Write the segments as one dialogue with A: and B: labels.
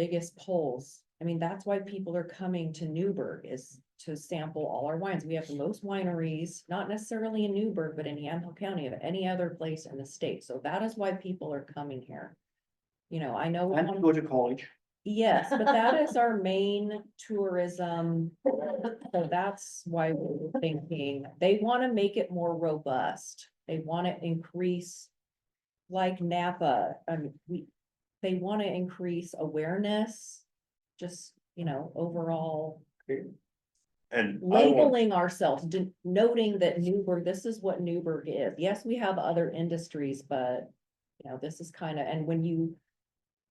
A: biggest polls. I mean, that's why people are coming to Newburgh is to sample all our wines. We have the most wineries, not necessarily in Newburgh, but in Yamhill County of any other place in the state. So that is why people are coming here. You know, I know.
B: I'm going to college.
A: Yes, but that is our main tourism. So that's why we we're thinking, they want to make it more robust. They want to increase. Like Napa, um, we, they want to increase awareness. Just, you know, overall
C: And. I don't want-
A: labeling ourselves, de- noting that Newburgh, this is what Newburgh is. Yes, we have other industries, but. You know, this is kind of, and when you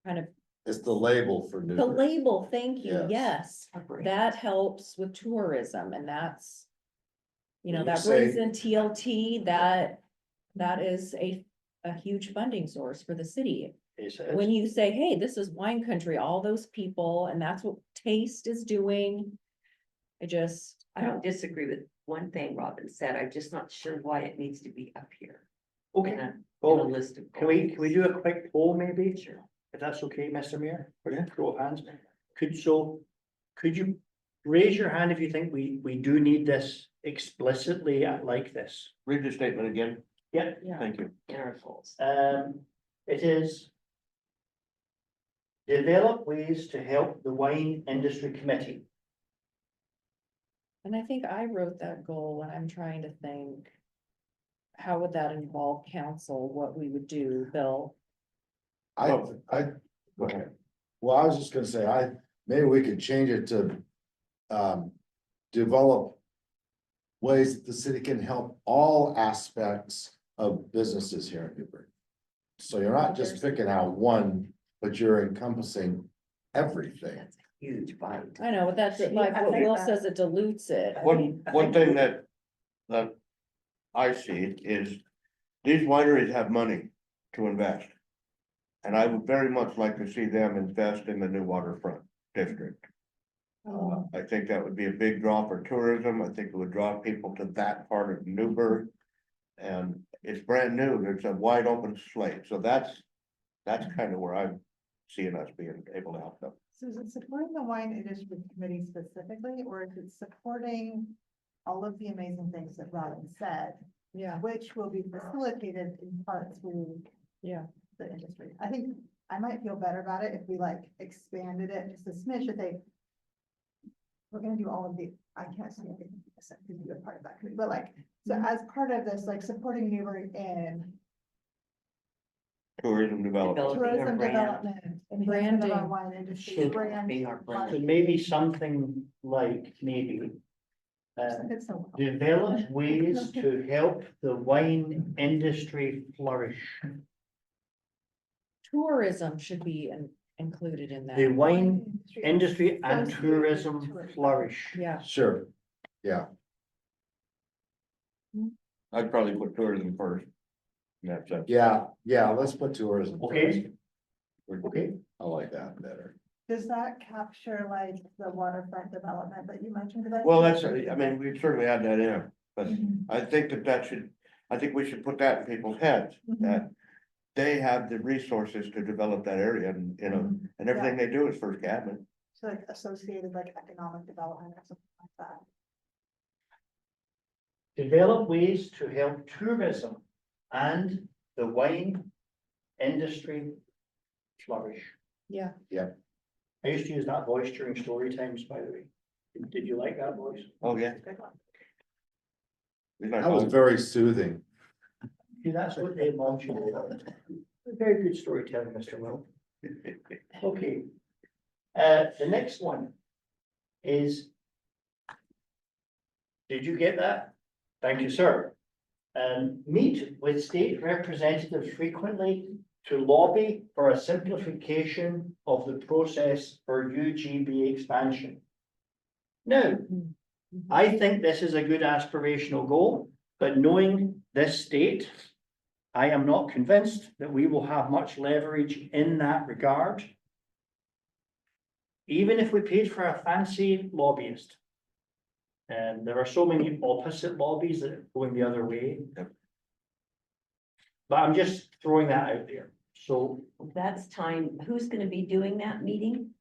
A: kind of
D: It's the label for
A: The
D: new,
A: label, thank you,
D: Yes.
A: yes, that helps with tourism and that's. You know,
D: When you
A: that brings
D: say-
A: in TLT, that, that is a, a huge funding source for the city.
B: He says.
A: When you say, hey, this is wine country, all those people, and that's what taste is doing. I just,
E: I don't disagree with one thing Robin said, I'm just not sure why it needs to be up here in
B: Okay,
E: a, in a
B: well,
E: list of.
B: can we, can we do a quick poll maybe?
E: Sure.
B: If that's okay, Mr. Mayor,
C: Oh,
B: we're gonna throw up hands. Could so, could you raise your hand if you think we, we do need this explicitly like this?
C: Read the statement again,
B: Yeah,
A: yeah.
C: thank you.
E: In our goals.
B: Um, it is. Develop ways to help the wine industry committee.
A: And I think I wrote that goal when I'm trying to think. How would that involve council, what we would do, Bill?
D: I,
B: Oh.
D: I, go ahead. Well, I was just gonna say, I, maybe we could change it to, um, develop. Ways that the city can help all aspects of businesses here in Newburgh. So you're not just picking out one, but you're encompassing everything.
E: That's a huge bite.
A: I know, but that's
E: Yeah,
A: like
E: I
A: what
E: think
A: Will
E: that-
A: says, it dilutes it.
C: One, one thing that, that I see is these wineries have money to invest. And I would very much like to see them invest in the new waterfront district.
F: Um,
C: Uh, I think that would be a big draw for tourism. I think it would draw people to that part of Newburgh. And it's brand new. There's a wide open slate. So that's, that's kind of where I'm seeing us being able to help them.
F: So is it supporting the wine industry committee specifically, or is it supporting all of the amazing things that Robin said,
A: Yeah,
F: which will be facilitated in part through
A: yeah.
F: the industry? I think I might feel better about it if we like expanded it just a smidge, if they we're gonna do all of the, I can't see anything except to be a part of that committee, but like, so as part of this, like supporting Newbury in
C: Tourism development.
E: Developing our
F: tourism
E: brand.
F: development, enhancement of our
A: Branding.
F: wine industry,
E: Should
F: brand.
E: be our
B: So
E: brand.
B: maybe something like maybe. Uh,
F: It's so-
B: Develop ways to help the wine industry flourish.
A: Tourism should be in- included in
B: The
A: that.
B: wine industry and
F: Associated with
B: tourism
F: tourism.
B: flourish.
A: Yeah,
D: Sure,
C: I'd probably put tourism first. in that sense.
D: yeah, yeah, let's put tourism.
B: Okay.
D: first.
B: Okay,
D: I like that better.
F: Does that capture like the waterfront development that you mentioned? 'Cause I
C: Well,
F: think-
C: that's, I mean, we certainly add that in, but
F: Mhm,
C: I think that that should, I think we should put that in people's heads,
F: mhm,
C: that they have the resources to develop that area and, you know,
F: mhm.
C: and everything they do is first Cabinet.
F: So like associated like economic development or something like that.
B: develop ways to help tourism and the wine industry flourish.
A: yeah.
B: I used to use that voice during story times, by the way. Did- Did you like that voice?
C: Oh, yeah.
F: Good one.
C: It's
D: That was
C: like-
D: very soothing.
B: See, that's what they want you to do. Very good storytelling, Mr. Will. Okay. Uh, the next one is. Did you get that? Thank you, sir. Um, meet with state representatives frequently to lobby for a simplification of the process for UGB expansion. Now, I think this is a good aspirational goal, but knowing this state, I am not convinced that we will have much leverage in that regard. Even if we paid for a fancy lobbyist. And there are so many opposite lobbies that are going the other way.
C: Yep.
B: But I'm just throwing that out there. So
E: That's time, who's gonna be doing that meeting?